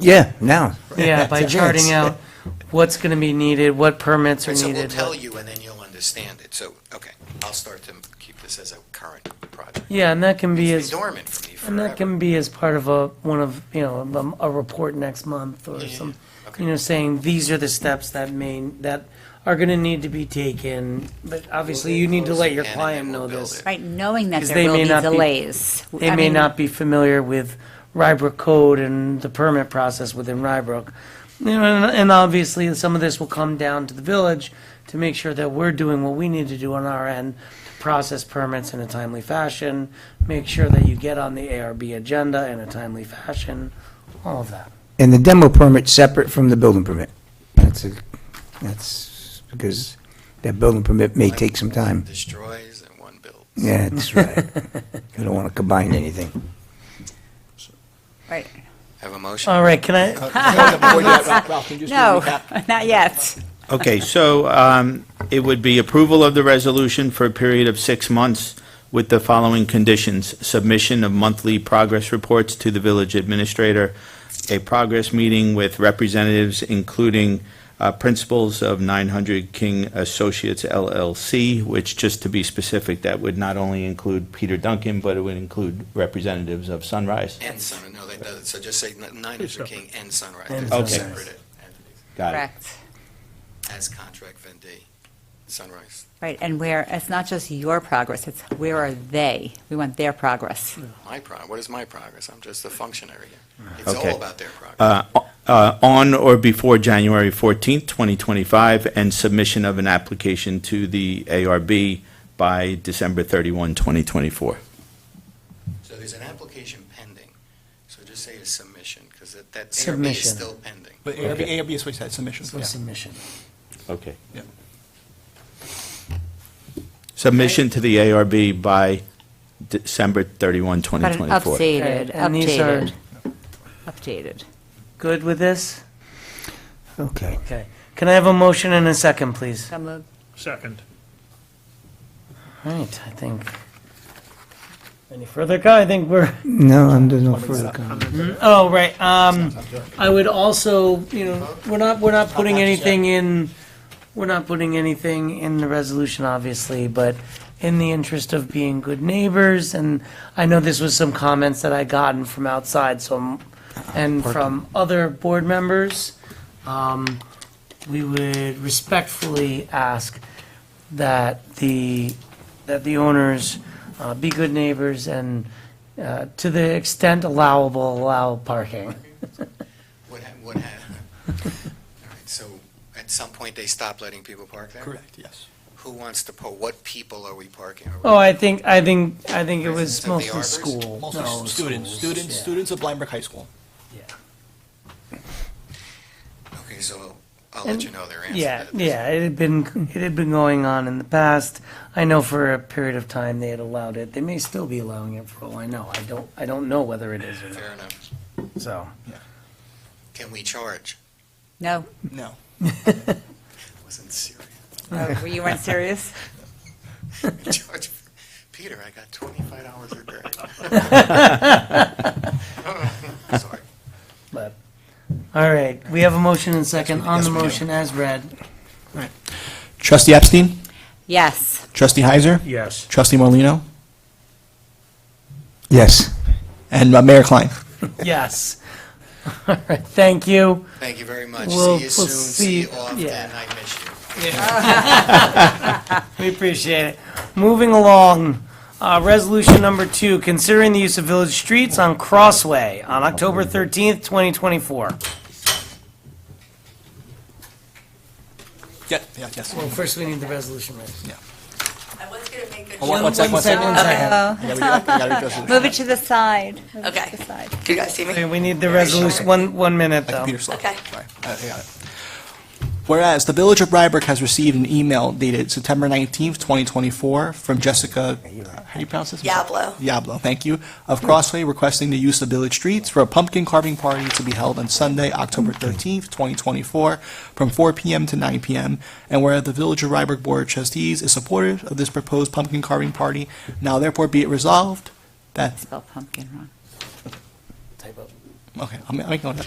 Yeah, now. Yeah, by charting out what's gonna be needed, what permits are So we'll needed. tell what- you, and then you'll understand it. So, okay, I'll start to keep this as a current project. Yeah, and that can be It's as, been dormant for me and that forever. can be as part of a, one of, you know, um, a report next month or Yeah, yeah, some, yeah. Okay. you know, saying, these are the steps that may, that are gonna need to be taken, but obviously you need to let your And then client we'll know build this. it. Right, knowing that Because there they will may be not be- delays. They I may mean, not be familiar with Rybrook code and the permit process within Rybrook. You know, and, and obviously, some of this will come down to the village to make sure that we're doing what we need to do on our end, to process permits in a timely fashion, make sure that you get on the ARB agenda in a timely fashion, all of that. And the demo permit's separate from the building permit. That's a, that's because that building permit may take some time. Destroys and one builds. Yeah, that's right. You don't want to combine anything. Right. Have a motion? All right, can I, No, not yet. Okay, so um, it would be approval of the resolution for a period of six months with the following conditions. Submission of monthly progress reports to the village administrator, a progress meeting with representatives, including uh, principals of 900 King Associates LLC, which, just to be specific, that would not only include Peter Duncan, but it would include representatives of Sunrise. And Sunrise, no, that doesn't, so just say Niners are King and Sunrise. And They're two Sunrise. separate entities. Got it. Correct. As contract vendee, Sunrise. Right, and where, it's not just your progress, it's where are they? We want their progress. My pro, what is my progress? I'm just a functionary here. It's all Uh-huh. Okay. about their progress. uh, uh, on or before January 14th, 2025, and submission of an application to the ARB by December 31, 2024. So there's an application pending, so just say a submission, because that, that ARB is Submission. still pending. But ARB, Okay. ARB is what you said, submission, so yeah. submission. Okay. Yeah. Submission to the ARB by December 31, But an 2024. updated, And these are- updated, updated. Good with this? Okay. Okay. Can I have a motion and a second, please? So moved. Second. All right, I think. Any further, I think we're No, I'm, there's no further comment. Oh, right, um, I would also, you know, we're not, we're not putting anything in, we're not putting anything in the resolution, obviously, but in the interest of being good neighbors, and I know this was some comments that I gotten from outside, so, I'm- and from other board members, um, we would respectfully ask that the, that the owners uh, be good neighbors and, uh, to the extent allowable, allow parking. What, ha- what happened? All right, so at some point, they stopped letting people park there? Correct, yes. Who wants to po, what people are we parking? Are we- Oh, I think, I think, I think it was Residents of the mostly arbors? school. Mostly No, schools, students, students, yeah. students of Blindbrook High School. Okay, so I'll- I'll let you know their answer. Yeah, to this. yeah, it had been, it had been going on in the past. I know for a period of time they had allowed it. They may still be allowing it for all I know. I don't, I don't know whether it is or not, Fair enough. so. Can we charge? No, No. Wasn't serious. no, Oh, you weren't serious? Charge, for- Peter, I got twenty-five dollars a day. Sorry. But, all right, we have a motion and second on the yes, we do. motion as read. Trustee Epstein? Yes, Trustee Heiser? Yes. Trustee Morlino, Yes. And uh, Mayor Klein? Yes. All right, thank you. Thank you very much. We'll- See you we'll soon, see- see you often, yeah. I miss you. We appreciate it. Moving along, uh, resolution number two, considering the use of village streets on Crossway on October 13th, 2024. Yeah, yeah, yes. Well, first we need the resolution, right? I was gonna make Oh, a, one- one sec, one sec. One second. Yeah, we gotta- we gotta address it. move it to the side. Move it to Okay. the side. do you guys see Okay, me? We need the resolution, one, one minute, My though. computer's slow. Okay. Sorry. Uh, I got it. Whereas the Village of Rybrook has received an email dated September 19th, 2024, from Jessica, how do you pronounce this? Diablo. Diablo, thank you, of Crossway requesting the use of village streets for a pumpkin carving party to be held on Sunday, October 13th, 2024, from 4 PM to 9 PM. And whereas the Village of Rybrook Board of Trustees is supportive of this proposed pumpkin carving party, now therefore be it resolved that, Spell pumpkin wrong. okay, I'm I'm making note of that.